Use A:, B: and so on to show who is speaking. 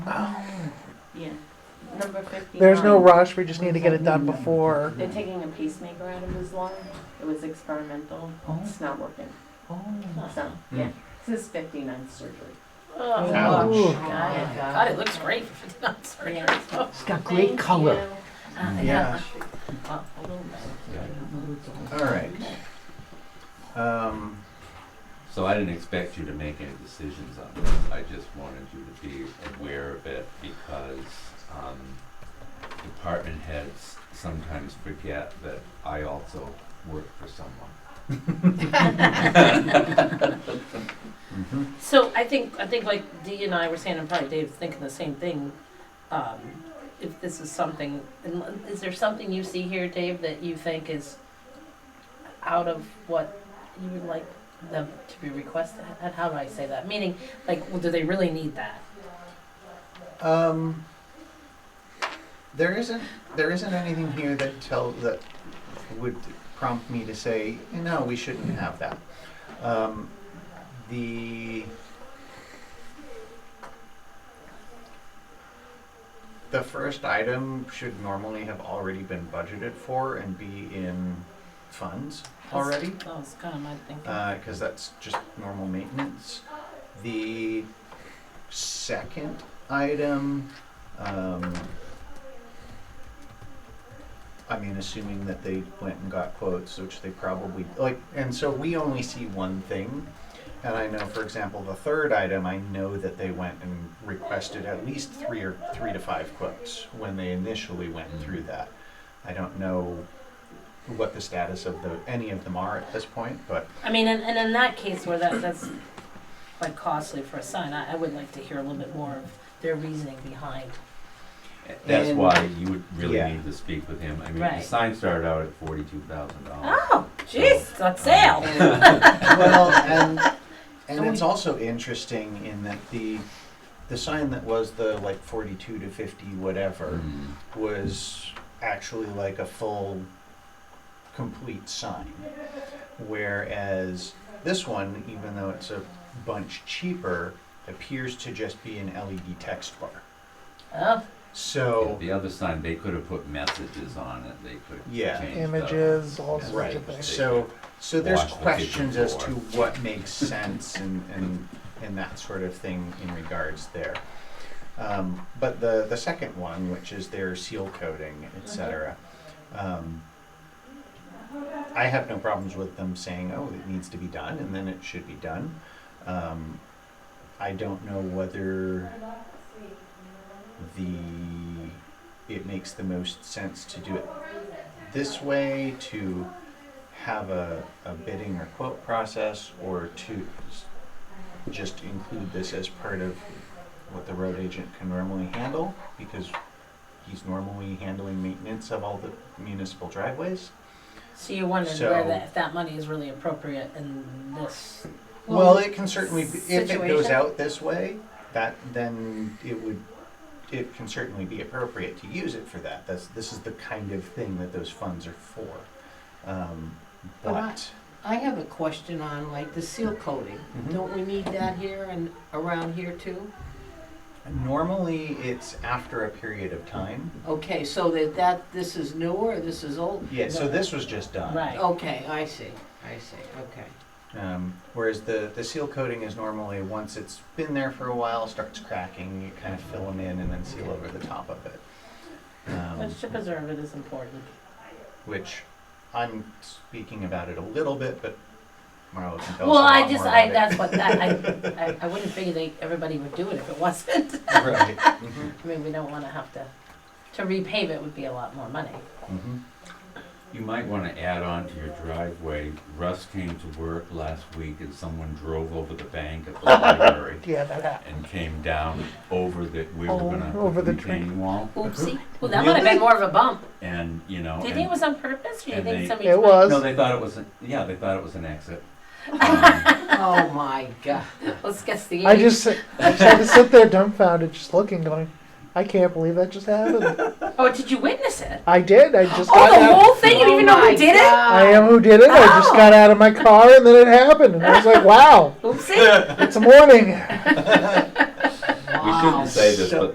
A: Yeah, number fifty-nine.
B: Oh, There's no rush, we just need to get it done before.
A: They're taking a pacemaker out of his lung. It was experimental.
B: Oh.
A: It's not working. So,
C: Hmm.
A: yeah, this is fifty-nine surgery.
D: Oh,
C: Ouch.
B: Ooh.
A: Got it.
D: God, it looks great for fifty-nine surgery.
A: Yeah.
E: It's got great color.
A: Uh,
B: Yeah.
C: All right. Um,
F: So I didn't expect you to make any decisions on this. I just wanted you to be aware of it because um, department heads sometimes forget that I also work for someone.
D: So I think, I think like Dee and I were saying, and probably Dave's thinking the same thing. Um, if this is something, and is there something you see here, Dave, that you think is out of what you would like them to be requested? How- How do I say that? Meaning, like, well, do they really need that?
C: um, there isn't there isn't anything here that tell that would prompt me to say no, we shouldn't have that. Um, the the first item should normally have already been budgeted for and be in funds already. Uh,
D: That was kind of my thinking.
C: because that's just normal maintenance. The second item, um, I mean, assuming that they went and got quotes, which they probably like, and so we only see one thing. And I know, for example, the third item, I know that they went and requested at least three or three to five quotes when they initially went through that. I don't know what the status of the any of them are at this point, but
D: I mean, and, and in that case where that, that's like costly for a sign, I, I would like to hear a little bit more of their reasoning behind.
F: That's
C: And-
F: why you would really
C: Yeah.
F: need to speak with him. I mean, the
D: Right.
F: sign started out at forty-two thousand
C: Ah.
F: dollars.
D: Oh, jeez, it's on sale.
C: well, and and it's also interesting in that the the sign that was the like forty two to fifty whatever
F: Hmm.
C: was actually like a full complete sign. Whereas this one, even though it's a bunch cheaper, appears to just be an LED text bar.
D: Oh,
C: So
F: The other sign, they could have put messages on it. They could
C: Yeah.
F: change the-
B: Images, all sorts of
C: Right,
B: things.
C: so, so there's
F: Wash the kitchen
C: questions as to
F: floor.
C: what makes sense and, and, and that sort of thing in regards there. Um, but the, the second one, which is their seal coating,
B: Mm-hmm.
C: et cetera, um, I have no problems with them saying, oh, it needs to be done, and then it should be done. Um, I don't know whether the, it makes the most sense to do it this way, to have a, a bidding or quote process, or to s- just include this as part of what the road agent can normally handle, because he's normally handling maintenance of all the municipal driveways.
D: so you wondered
C: So-
D: where that, if that money is really appropriate in this.
C: Well, it can certainly, be if it goes
A: situation.
C: out this way, that, then it would, it can certainly be appropriate to use it for that. That's, this is the kind of thing that those funds are for. Um,
E: But I-
C: But,
E: I have a question on like the seal coating.
C: Mhm.
E: Don't we need that here and around here too?
C: Normally, it's after a period of time.
E: Okay, so that, that, this is newer, this is old?
C: Yeah, so this was just done.
D: Right.
E: Okay, I see, I see, okay.
C: Um, whereas the, the seal coating is normally, once it's been there for a while, starts cracking, you kind of fill them in and then seal over the top of it. Um,
D: Which to preserve it is important.
C: which I'm speaking about it a little bit, but Marlo can tell us
D: Well,
C: a lot
D: I just,
C: more
D: I,
C: about
D: that's what, I, I, I- I wouldn't figure they, everybody would do it if it wasn't.
C: it. Right. Mhm,
D: I mean, we don't wanna have to, to repave it would be a lot more money.
C: mhm.
F: You might want to add on to your driveway. Russ came to work last week and someone drove over the bank at the library
B: Yeah, that happened.
F: and came down over the, we were
D: Oh,
F: gonna
B: over
F: put
B: the
F: the
B: tree.
F: retaining wall.
D: Oopsie. Well, that might have been more of a bump.
F: And, you know,
D: Do you think it
F: and,
D: was on purpose, or do you
F: and
D: think
F: they-
D: somebody?
B: It was.
F: no, they thought it was, an- yeah, they thought it was an exit. Um,
E: Oh, my God.
D: Let's guess the age.
B: I just, sit- I just had to sit there dumbfounded, just looking, going, I can't believe that just happened.
D: Oh, did you witness it?
B: I Oh did. I just
D: Oh,
B: got
D: the
B: out.
D: whole thing? You didn't even know who did it?
B: I am who did it. I just
D: Oh.
B: got out of my car and then it happened. And I was like, wow,
D: Oopsie.
B: it's morning.
F: We shouldn't say this,
C: So-
F: but